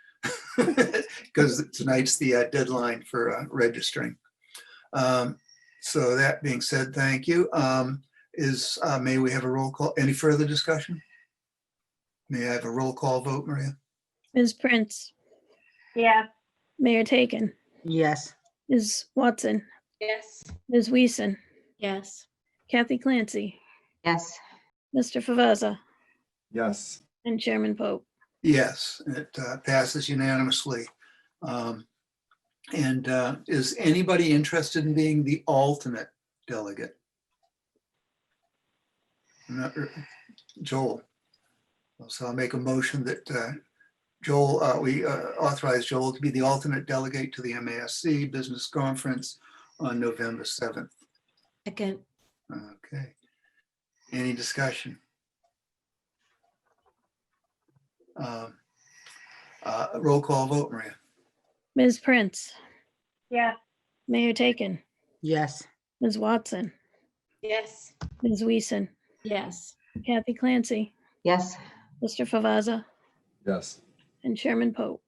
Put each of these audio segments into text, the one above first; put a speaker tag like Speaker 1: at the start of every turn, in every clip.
Speaker 1: because tonight's the uh, deadline for uh, registering. Um, So that being said, thank you. Um, Is, uh, may we have a roll call? Any further discussion? May I have a roll call vote, Maria?
Speaker 2: Ms. Prince,
Speaker 3: Yeah.
Speaker 2: Mayor Taken,
Speaker 4: Yes.
Speaker 2: Ms. Watson,
Speaker 3: Yes.
Speaker 2: Ms. Weason,
Speaker 3: Yes.
Speaker 2: Kathy Clancy,
Speaker 4: Yes.
Speaker 2: Mr. Favazza,
Speaker 5: Yes.
Speaker 2: and Chairman Pope.
Speaker 1: Yes, it uh, passes unanimously. Um, And uh, is anybody interested in being the alternate delegate? Not r- Joel. So I'll make a motion that uh, Joel, uh, we uh, authorize Joel to be the alternate delegate to the MASC Business Conference on November 7th.
Speaker 3: Second.
Speaker 1: Okay. Any discussion? Um, uh, Roll call vote, Maria.
Speaker 2: Ms. Prince,
Speaker 3: Yeah.
Speaker 2: Mayor Taken,
Speaker 4: Yes.
Speaker 2: Ms. Watson,
Speaker 3: Yes.
Speaker 2: Ms. Weason,
Speaker 3: Yes.
Speaker 2: Kathy Clancy,
Speaker 4: Yes.
Speaker 2: Mr. Favazza,
Speaker 5: Yes.
Speaker 2: and Chairman Pope.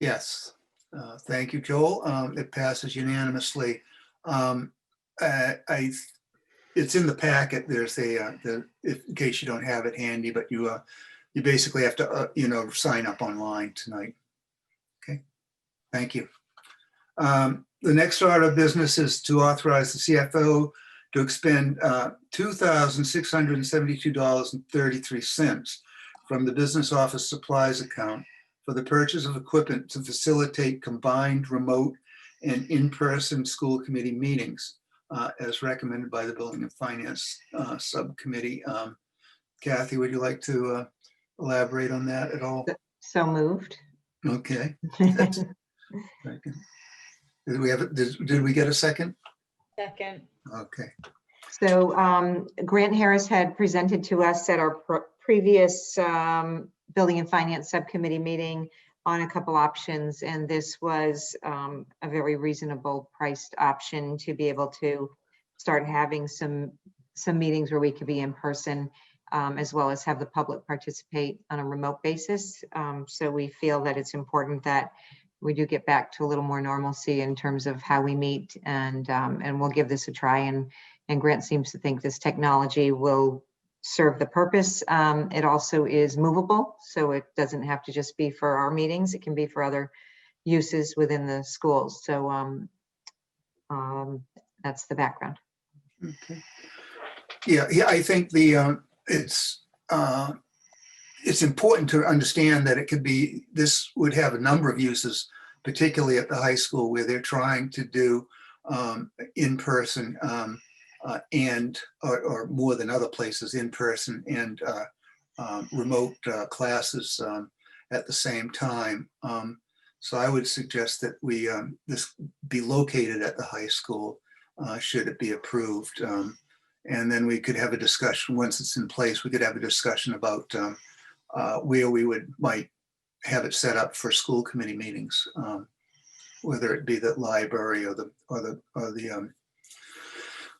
Speaker 1: Yes. Uh, Thank you, Joel. Um, It passes unanimously. Um, I, I- it's in the packet. There's a, uh, the- if- in case you don't have it handy, but you, uh, you basically have to, uh, you know, sign up online tonight. Okay, thank you. Um, The next order of business is to authorize the CFO to expend uh, $2,672.33 from the business office supplies account for the purchase of equipment to facilitate combined remote and in-person school committee meetings uh, as recommended by the Building and Finance uh, Subcommittee. Um, Kathy, would you like to uh, elaborate on that at all?
Speaker 4: So moved.
Speaker 1: Okay. second. Did we have, did did we get a second?
Speaker 3: Second.
Speaker 1: Okay,
Speaker 4: So um, Grant Harris had presented to us at our pr- previous um, Building and Finance Subcommittee meeting on a couple options, and this was um, a very reasonable priced option to be able to start having some, some meetings where we could be in person, um, as well as have the public participate on a remote basis. Um, So we feel that it's important that we do get back to a little more normalcy in terms of how we meet, and, um, and we'll give this a try and and Grant seems to think this technology will serve the purpose. Um, It also is movable, so it doesn't have to just be for our meetings. It can be for other uses within the schools. So um, um, that's the background.
Speaker 1: okay. Yeah, yeah, I think the, um, it's, uh, it's important to understand that it could be, this would have a number of uses, particularly at the high school where they're trying to do um, in person um, uh, and, or, or more than other places, in person and uh, um, remote uh, classes um, at the same time. Um, so I would suggest that we, um, this be located at the high school, uh, should it be approved. Um, and then we could have a discussion, once it's in place, we could have a discussion about um, uh, where we would, might have it set up for school committee meetings. um, Whether it be the library or the, or the, or the, um,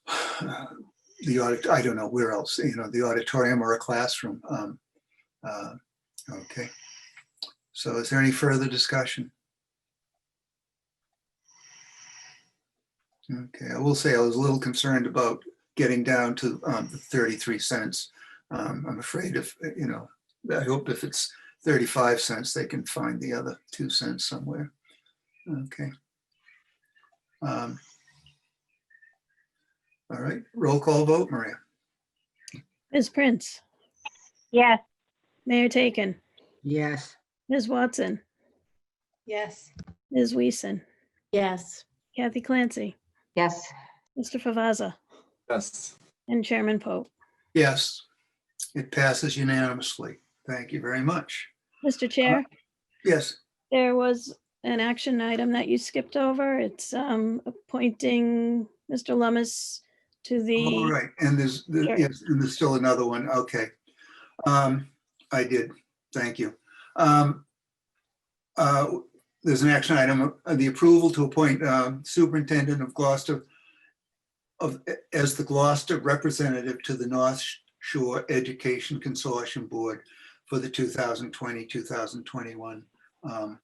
Speaker 1: the audit, I don't know where else, you know, the auditorium or a classroom. um, uh, Okay. So is there any further discussion? Okay, I will say I was a little concerned about getting down to um, the 33 cents. Um, I'm afraid if, you know, I hope if it's 35 cents, they can find the other two cents somewhere. Okay. Um, All right, roll call vote, Maria.
Speaker 2: Ms. Prince,
Speaker 3: Yes.
Speaker 2: Mayor Taken,
Speaker 4: Yes.
Speaker 2: Ms. Watson,
Speaker 3: Yes.
Speaker 2: Ms. Weason,
Speaker 3: Yes.
Speaker 2: Kathy Clancy,
Speaker 4: Yes.
Speaker 2: Mr. Favazza,
Speaker 5: Yes.
Speaker 2: and Chairman Pope.
Speaker 1: Yes, it passes unanimously. Thank you very much.
Speaker 2: Mr. Chair?
Speaker 1: Yes,
Speaker 2: There was an action item that you skipped over. It's um, appointing Mr. Lummis to
Speaker 1: all
Speaker 2: the,
Speaker 1: right, and there's, there-
Speaker 2: Sure.
Speaker 1: yes, and there's still another one, okay. Um, I did, thank you. Um, uh, There's an action item, uh, the approval to appoint um, Superintendent of Gloucester of, as the Gloucester representative to the North Shore Education Consortium Board for the 2020, 2021 um,